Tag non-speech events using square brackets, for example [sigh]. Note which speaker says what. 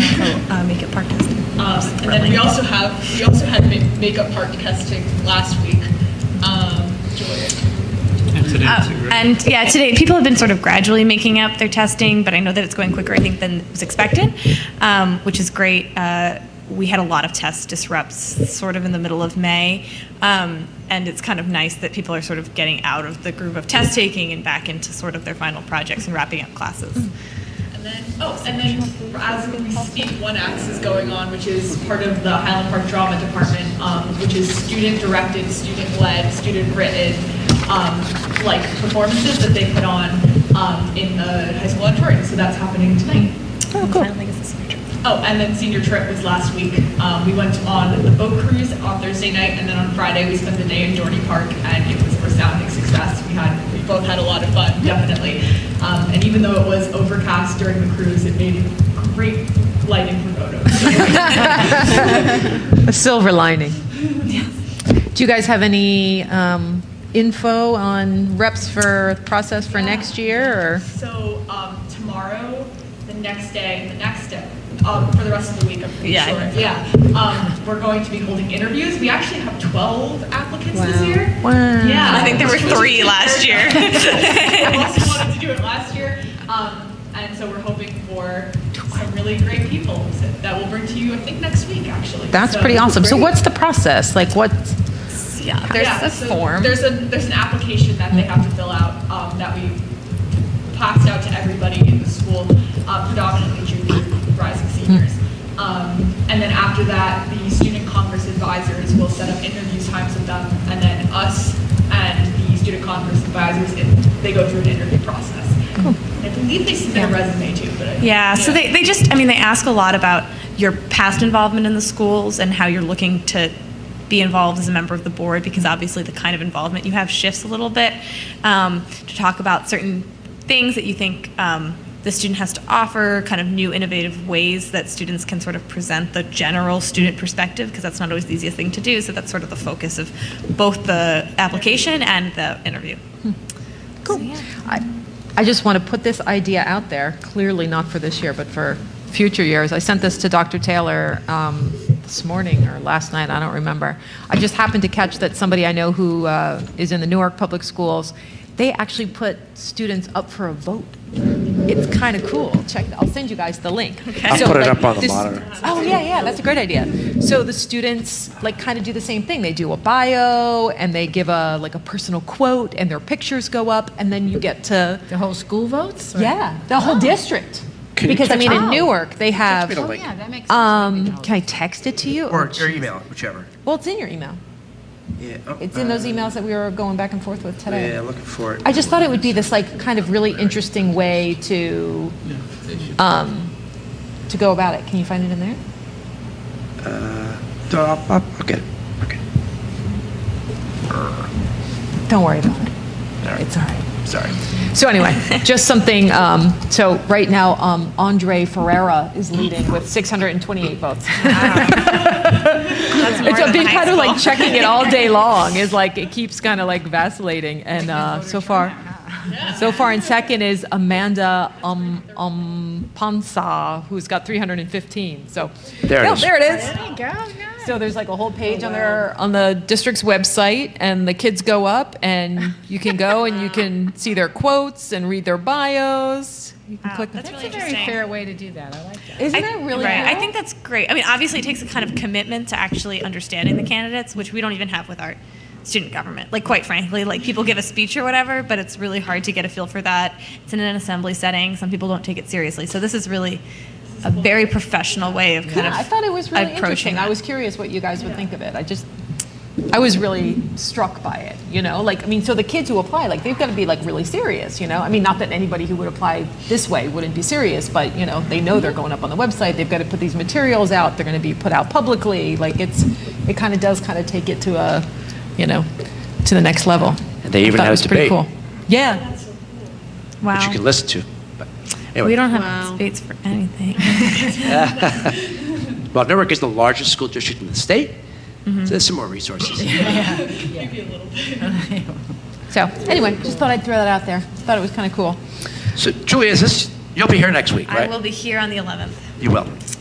Speaker 1: uh, uh, make it park testing.
Speaker 2: Um, And then we also have, we also had ma- makeup park testing last week. Um, Joy,
Speaker 3: And today too,
Speaker 4: Uh,
Speaker 3: right?
Speaker 4: And yeah, today people have been sort of gradually making up their testing, but I know that it's going quicker, I think, than was expected, um, which is great. Uh, we had a lot of test disrupts sort of in the middle of May, um, and it's kind of nice that people are sort of getting out of the groove of test taking and back into sort of their final projects and wrapping up classes.
Speaker 2: And then, oh, and then as we speak, One Acts is going on, which is part of the Highland Park Drama Department, um, which is student-directed, student-led, student-written, um, like performances that they put on um, in the high school auditorium. So that's happening tonight.
Speaker 1: Oh, cool.
Speaker 2: Oh, and then senior trip was last week. Um, we went on the boat cruise on Thursday night, and then on Friday we spent the day in Dorney Park, and it was a resounding success. We had we both had a lot of fun, definitely. Um, and even though it was overcast during the cruise, it made great lighting
Speaker 4: [laughs]
Speaker 2: for photos.
Speaker 5: A silver lining. Do you guys have any um, info on reps for process for next year? Or
Speaker 2: so um, tomorrow, the next day, and the next day. Um, for the rest of the week, I'm pretty
Speaker 4: Yeah, I
Speaker 2: sure.
Speaker 4: think
Speaker 2: Yeah. Um, we're going to be holding interviews. We actually have 12 applicants this year. Yeah.
Speaker 4: I think there were
Speaker 2: Which is
Speaker 4: three last
Speaker 1: [laughs]
Speaker 2: very
Speaker 4: year.
Speaker 2: I also wanted to do it last year, um, and so we're hoping for some really great people that we'll bring to you, I think, next week, actually.
Speaker 5: That's
Speaker 2: So-
Speaker 5: pretty awesome. So what's the process? Like what?
Speaker 4: Yeah.
Speaker 5: There's
Speaker 2: Yeah,
Speaker 5: a
Speaker 2: so
Speaker 5: form.
Speaker 2: There's a, there's an application that they have to fill out, um, that we passed out to everybody in the school, uh, predominantly junior rising seniors. Um, and then after that, the student congress advisors will set up interview times with them, and then us and the student congress advisors, it- they go through an interview process. I believe they submit a resume too, but I.
Speaker 4: Yeah, so they, they just, I mean, they ask a lot about your past involvement in the schools and how you're looking to be involved as a member of the board, because obviously the kind of involvement you have shifts a little bit, um, to talk about certain things that you think um, the student has to offer, kind of new innovative ways that students can sort of present the general student perspective, because that's not always the easiest thing to do, so that's sort of the focus of both the application and the interview.
Speaker 5: I, I just want to put this idea out there, clearly not for this year, but for future years. I sent this to Dr. Taylor um, this morning or last night, I don't remember. I just happened to catch that somebody I know who uh, is in the Newark Public Schools, they actually put students up for a vote. It's kind of cool. Check, I'll send you guys the link.
Speaker 6: I'll
Speaker 5: So,
Speaker 6: put it
Speaker 5: like,
Speaker 6: up on the
Speaker 5: this-
Speaker 6: monitor.
Speaker 5: Oh, yeah, yeah, that's a great idea. So the students like kind of do the same thing. They do a bio and they give a like a personal quote and their pictures go up and then you get to
Speaker 7: The whole school votes? or-
Speaker 5: yeah, the whole district.
Speaker 6: Can you
Speaker 5: because I mean in
Speaker 7: Oh.
Speaker 5: Newark they have
Speaker 6: me the
Speaker 7: Oh,
Speaker 6: link.
Speaker 7: yeah, that makes sense.
Speaker 5: um can I text it to you?
Speaker 8: Or, or email, whichever.
Speaker 5: well, it's in your email.
Speaker 8: Yeah. oh,
Speaker 5: It's in those
Speaker 8: uh,
Speaker 5: emails that we were going back and forth with today.
Speaker 8: Yeah, looking for it.
Speaker 5: I just thought it would be this like kind of really interesting way to um, to go about it. Can you find it in there?
Speaker 8: No, I'll, I'll, I'll get it. Okay.
Speaker 5: Don't worry about it.
Speaker 8: right.
Speaker 5: It's all right.
Speaker 8: Sorry.
Speaker 5: So anyway, just something, um, so right now, um, Andre Ferreira is leading with 628 votes. It's I've been kind of like checking it all
Speaker 4: [laughs]
Speaker 5: day long, is like, it keeps kind of like vacillating, and uh, so far, so far in second is Amanda um, um, Pansa, who's got 315, so.
Speaker 6: There it
Speaker 5: Yeah,
Speaker 6: is.
Speaker 5: There it is.
Speaker 7: There you go, nice.
Speaker 5: So there's like a whole page on their on the district's website, and the kids go up, and you can go and
Speaker 4: [laughs]
Speaker 5: you can see their quotes and read their bios. You can
Speaker 4: Wow,
Speaker 5: click.
Speaker 4: that's
Speaker 7: That's
Speaker 4: really
Speaker 7: a very
Speaker 4: interesting.
Speaker 7: fair way to do that, I like that.
Speaker 5: Isn't
Speaker 4: I-
Speaker 5: that really?
Speaker 4: right. I
Speaker 5: cool?
Speaker 4: think that's great. I mean, obviously, it takes a kind of commitment to actually understanding the candidates, which we don't even have with our student government. Like, quite frankly, like people give a speech or whatever, but it's really hard to get a feel for that. It's in an assembly setting. Some people don't take it seriously. So this is really a very professional way of kind
Speaker 5: Yeah,
Speaker 4: of.
Speaker 5: I thought it was really
Speaker 4: approaching
Speaker 5: interesting. I
Speaker 4: that.
Speaker 5: was curious what you guys would think of it. I just, I was really struck by it. You know, like I mean, so the kids who apply, like they've got to be like really serious. You know, I mean, not that anybody who would apply this way wouldn't be serious, but you know, they know they're
Speaker 4: Mm-hmm.
Speaker 5: going up on the website. They've got to put these materials out. They're going to be put out publicly. Like it's, it kind of does kind of take it to a, you know, to the next level.
Speaker 6: They even
Speaker 5: I thought
Speaker 6: had
Speaker 5: it was
Speaker 6: a
Speaker 5: pretty
Speaker 6: debate.
Speaker 5: cool. Yeah.
Speaker 4: wow.
Speaker 6: That you can listen to. But anyway,
Speaker 4: we don't have debates for
Speaker 5: [laughs]
Speaker 4: anything.
Speaker 6: Well, Newark is the largest school district in the state, so there's some more
Speaker 8: [laughs]
Speaker 6: resources.
Speaker 5: So anyway, just thought I'd throw that out there. Thought it was kind of cool.
Speaker 6: So, Julia, is this? You'll be here next week,
Speaker 4: I
Speaker 6: right?
Speaker 4: will be here on the 11th.
Speaker 6: You will.